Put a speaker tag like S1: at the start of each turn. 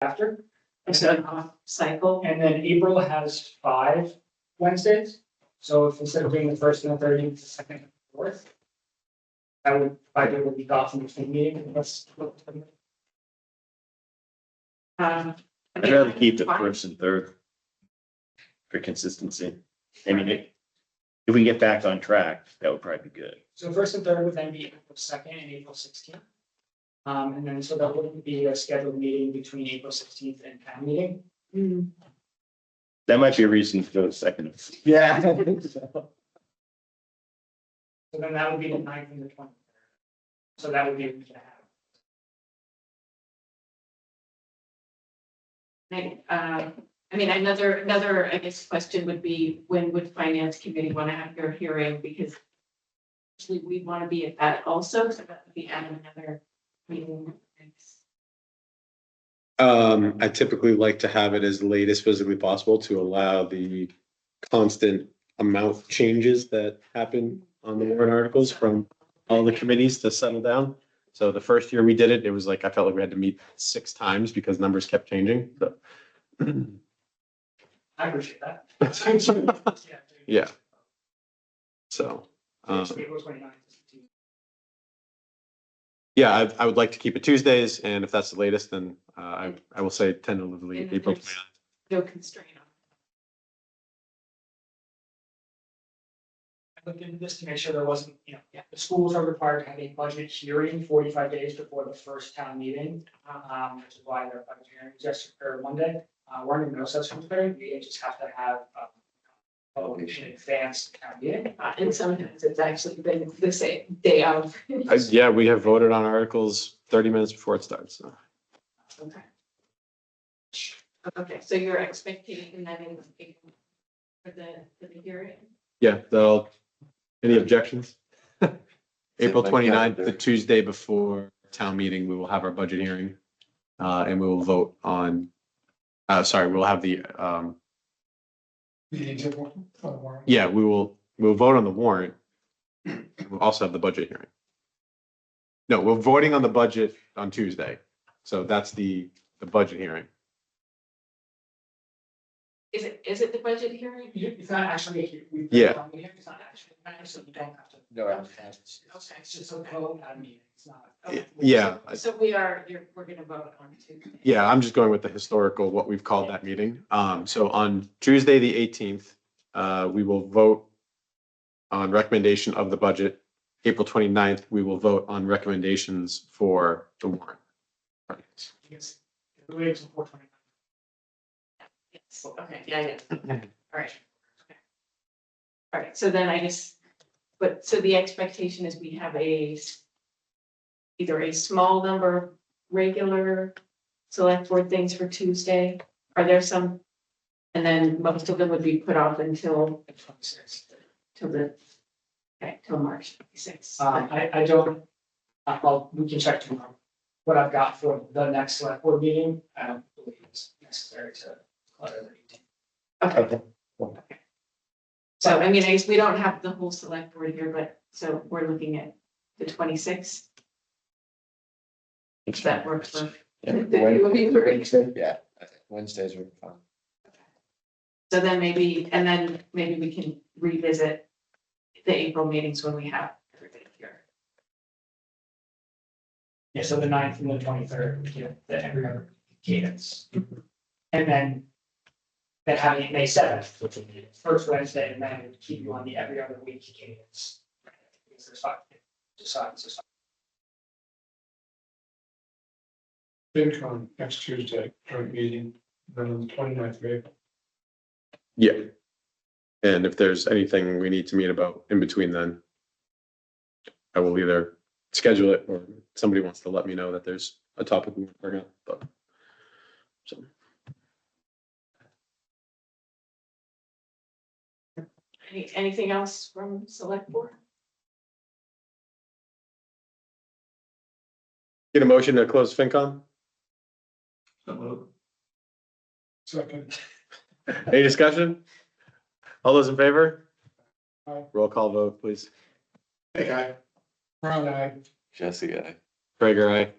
S1: after. And
S2: Is that-
S1: then off cycle.
S2: uh, And then April has five Wednesdays, so if instead of doing the first and the thirteenth, the second and the fourth. I would, I do a week off in between meetings, unless.
S1: Um, I
S3: I'd
S1: mean,
S3: rather keep the
S1: fine.
S3: first and third for consistency. I mean, it- if we can get back on track, that would probably be good.
S2: So first and third would then be April second and April sixteenth. Um, and then, so that wouldn't be a scheduled meeting between April sixteenth and town meeting.
S1: Mm,
S3: That might be a reason to go to second.
S4: Yeah.
S2: So then that would be the ninth and the twentieth. So that would be a week and a half.
S1: I, uh, I mean, another, another, I guess, question would be, when would finance committee want to have their hearing? Because actually, we want to be at that also, so that would be at another meeting.
S4: Um, I typically like to have it as late as physically possible to allow the constant amount changes that happen on the warrant articles from all the committees to settle down. So the first year we did it, it was like, I felt like we had to meet six times because numbers kept changing, so.
S2: I appreciate that. Yeah.
S4: Yeah. So, um,
S2: April 29th is the team.
S4: yeah, I, I would like to keep it Tuesdays, and if that's the latest, then, uh, I, I will say tentatively
S1: And
S4: April.
S1: there's- No constraint on.
S2: I looked into this to make sure there wasn't, you know, the schools are required to have a budget hearing forty-five days before the first town meeting. Um, which is why their budget hearing is just for Monday. Uh, we're in no such hearing, we just have to have a publication in advance of town meeting.
S1: Uh, And sometimes it's actually been the same day of.
S4: Uh, Yeah, we have voted on articles thirty minutes before it starts, so.
S1: Okay. Okay, so you're expecting that in, for the, for the hearing?
S4: Yeah, they'll, any objections? April
S3: my
S4: 29th,
S3: calendar.
S4: the Tuesday before town meeting, we will have our budget hearing. Uh, and we will vote on, uh, sorry, we'll have the, um, yeah, we will, we'll vote on the warrant. We'll also have the budget hearing. No, we're voting on the budget on Tuesday. So that's the, the budget hearing.
S1: Is it, is it the budget hearing?
S2: You- It's not actually, a hea- we.
S4: Yeah.
S2: town meeting, It's not actually, so you don't have to.
S3: No,
S1: I understand.
S2: It's it's just a vote at a meeting, it's not.
S1: Okay.
S4: Yeah, I-
S1: So we are, you're, we're gonna vote on Tuesday.
S4: Yeah, I'm just going with the historical, what we've called that meeting. Um, so on Tuesday, the eighteenth, uh, we will vote on recommendation of the budget. April 29th, we will vote on recommendations for the warrant. articles.
S2: Yes. The way it's four twenty.
S1: Yes, okay, yeah, yeah, all right. Okay. All right, so then I just, but, so the expectation is we have a s- either a small number of regular select board things for Tuesday, are there some? And then most of them would be put off until,
S2: Twenty-six.
S1: till the, okay, till March twenty-sixth.
S2: Um, I, I don't, uh, well, we can check tomorrow. What I've got for the next select board meeting, I don't believe it's necessary to clutter the meeting.
S1: Okay. So, I mean, I guess we don't have the whole select board here, but, so we're looking at the twenty-sixth, if that works for.
S3: Yeah, Wednesdays are fun.
S1: So then maybe, and then maybe we can revisit the April meetings when we have everybody here.
S2: Yeah, so the ninth and the twenty-third, we get the every other cadence. And then, then having it May seventh, which would be the first Wednesday, and then it would keep you on the every other week cadence. Because there's five, decide, decide.
S5: FinCon next Tuesday, joint meeting, then on the 29th of April.
S4: Yeah. And if there's anything we need to meet about in between then, I will either schedule it or somebody wants to let me know that there's a topic we we're gonna, but. So,
S1: Any, anything else from select board?
S4: get a motion to close FinCom?
S5: Second,
S4: Any discussion? All those in favor?
S5: Aye.
S4: Roll call vote, please.
S5: Brown Eye,
S6: Jesse, I
S4: Gregor, aye.